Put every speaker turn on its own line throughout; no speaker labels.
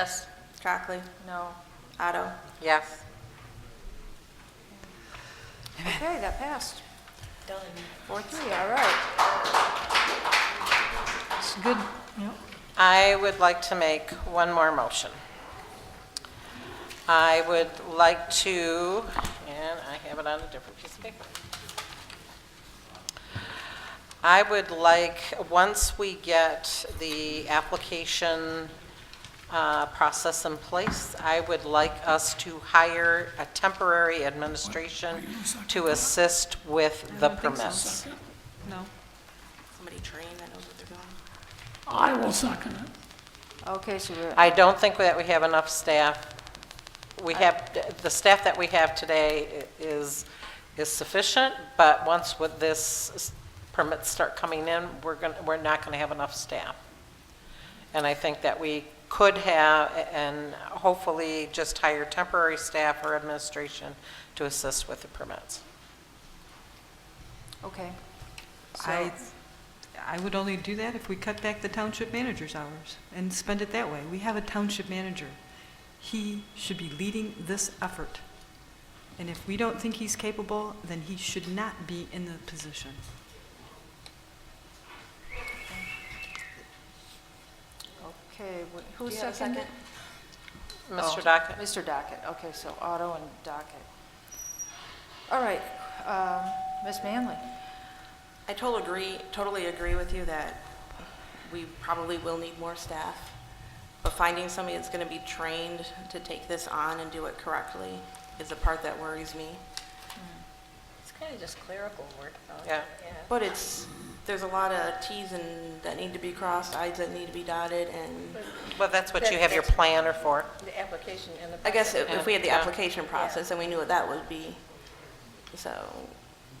Yes. Trackley? No. Otto?
Yes.
Okay, that passed.
Done.
Four, three, all right.
It's good, yep.
I would like to make one more motion. I would like to, and I have it on a different piece of paper. I would like, once we get the application uh, process in place, I would like us to hire a temporary administration to assist with the permits.
No.
Somebody trained that knows what they're doing.
I will second it.
Okay, so we're,
I don't think that we have enough staff. We have, the staff that we have today i- is, is sufficient, but once with this permits start coming in, we're going, to we're not going to have enough staff. And I think that we could have, and hopefully just hire temporary staff or administration to assist with the permits.
okay.
I, I would only do that if we cut back the township manager's hours and spend it that way. We have a township manager. He should be leading this effort. And if we don't think he's capable, then he should not be in the position.
Okay, wh- who
Do you have a
seconded?
second?
Mr.
Oh,
Dockett?
Mr. Dockett, okay, so Otto and Dockett. All right, um, Ms. Manley.
I totally agree, totally agree with you that we probably will need more staff, but finding somebody that's going to be trained to take this on and do it correctly is the part that worries me.
It's kind of just clerical work, though.
Yeah.
But it's, there's a lot of Ts and that need to be crossed, Is that need to be dotted, and
Well, that's what you
That-
have your
that's-
planner for.
The application and the.
I guess if if we had the
Yeah.
application process and we knew what that would be, so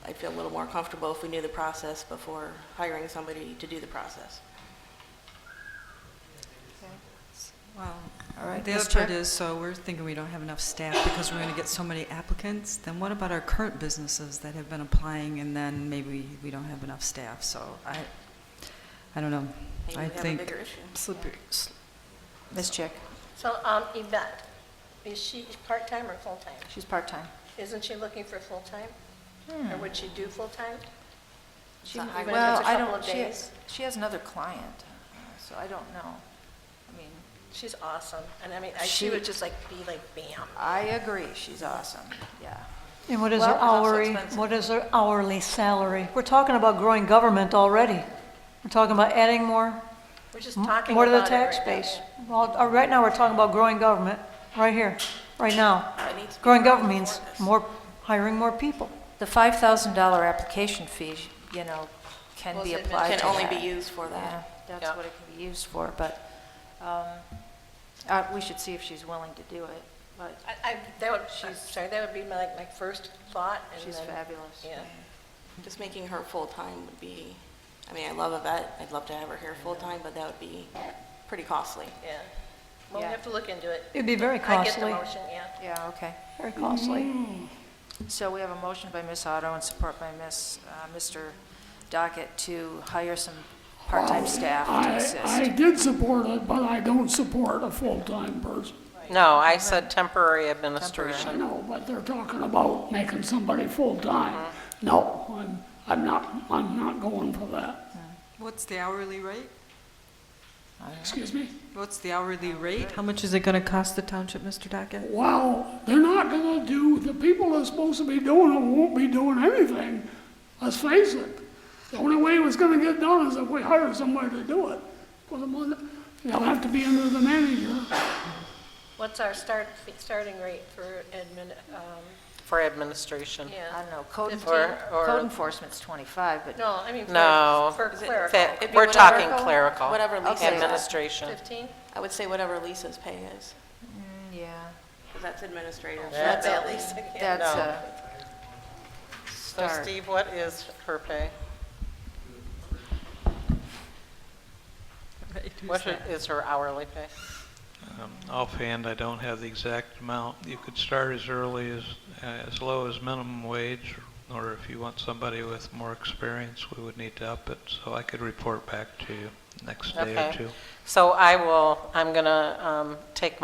I'd feel a little more comfortable if we knew the process before hiring somebody to do the process.
Wow.
All right,
The
Ms.
other part
Chair?
is, so we're thinking we don't have enough staff because we're going to get so many applicants. Then what about our current businesses that have been applying and then maybe we don't have enough staff? So I, I don't know.
Maybe we
I
have a
think
bigger issue.
slippery, sl-
Ms. Chick,
So, um, Yvette, is she part-time or full-time?
she's part-time.
Isn't she looking for full-time?
Hmm.
Or would she do full-time? She
So
even
I
if
would-
it's
Well,
a
I
couple
don't,
of
she,
days.
she has another client, so I don't know. I mean,
She's awesome. And I mean, I- she
She-
would just like be like, bam.
I agree, she's awesome, yeah.
And what is
Well,
their
it's also
hourly,
expensive.
what is their hourly salary? We're talking about growing government already. We're talking about adding more,
We're just talking
more to the
about it
tax
right now.
base. Well, uh, right now, we're talking about growing government, right here, right now.
It needs to be growing
Growing government means
for us.
more, hiring more people.
The $5,000 application fee, you know, can be
Was it
applied to
Can only be
that.
used for
Yeah,
that.
that's
Yeah.
what it can be used for, but um, uh, we should see if she's willing to do it, but
I, I, that would, she's, sorry, that would be my, like, my first thought and
she's
then-
fabulous.
Yeah.
Just making her full-time would be, I mean, I love Yvette, I'd love to have her here full-time, but that would be pretty costly.
Yeah. Well, we
Yeah.
have to look into it.
It'd be very
I
costly,
get the motion, yeah.
Yeah, okay.
very costly.
So we have a motion by Ms. Otto and support by Ms., uh, Mr. Dockett to hire some part-time staff to
I, I
assist.
did support it, but I don't support a full-time person.
No, I said temporary administration.
I know, but they're talking about making somebody full-time. No, I'm, I'm not, I'm not going for that.
what's the hourly rate?
Excuse me?
What's the hourly rate? How much is it going to cost the township, Mr. Dockett?
Well, they're not gonna do, the people that's supposed to be doing it won't be doing anything. Let's face it. The only way it was gonna get done is if we hired somebody to do it. Well, the mon- They'll have to be under the manager.
What's our start, starting rate for admin, um,
For administration.
yeah?
I don't know, code
Fifteen.
enfor-
Or- or-
code enforcement's 25, but
No, I mean,
No.
for, for
Is it-
Fa-
clerical.
be
We're
whatever-
talking clerical.
Whatever Lisa's
Okay.
Administration.
Fifteen?
I would say whatever Lisa's pay is,
yeah,
because that's administrator.
That's
at least.
that's
No.
a
So
start.
Steve, what is her pay? What i- is her hourly pay?
Um, Offhand, I don't have the exact amount. You could start as early as, as low as minimum wage, or if you want somebody with more experience, we would need to up it, so I could report back to you next day or
Okay.
two.
So I will, I'm going to um, take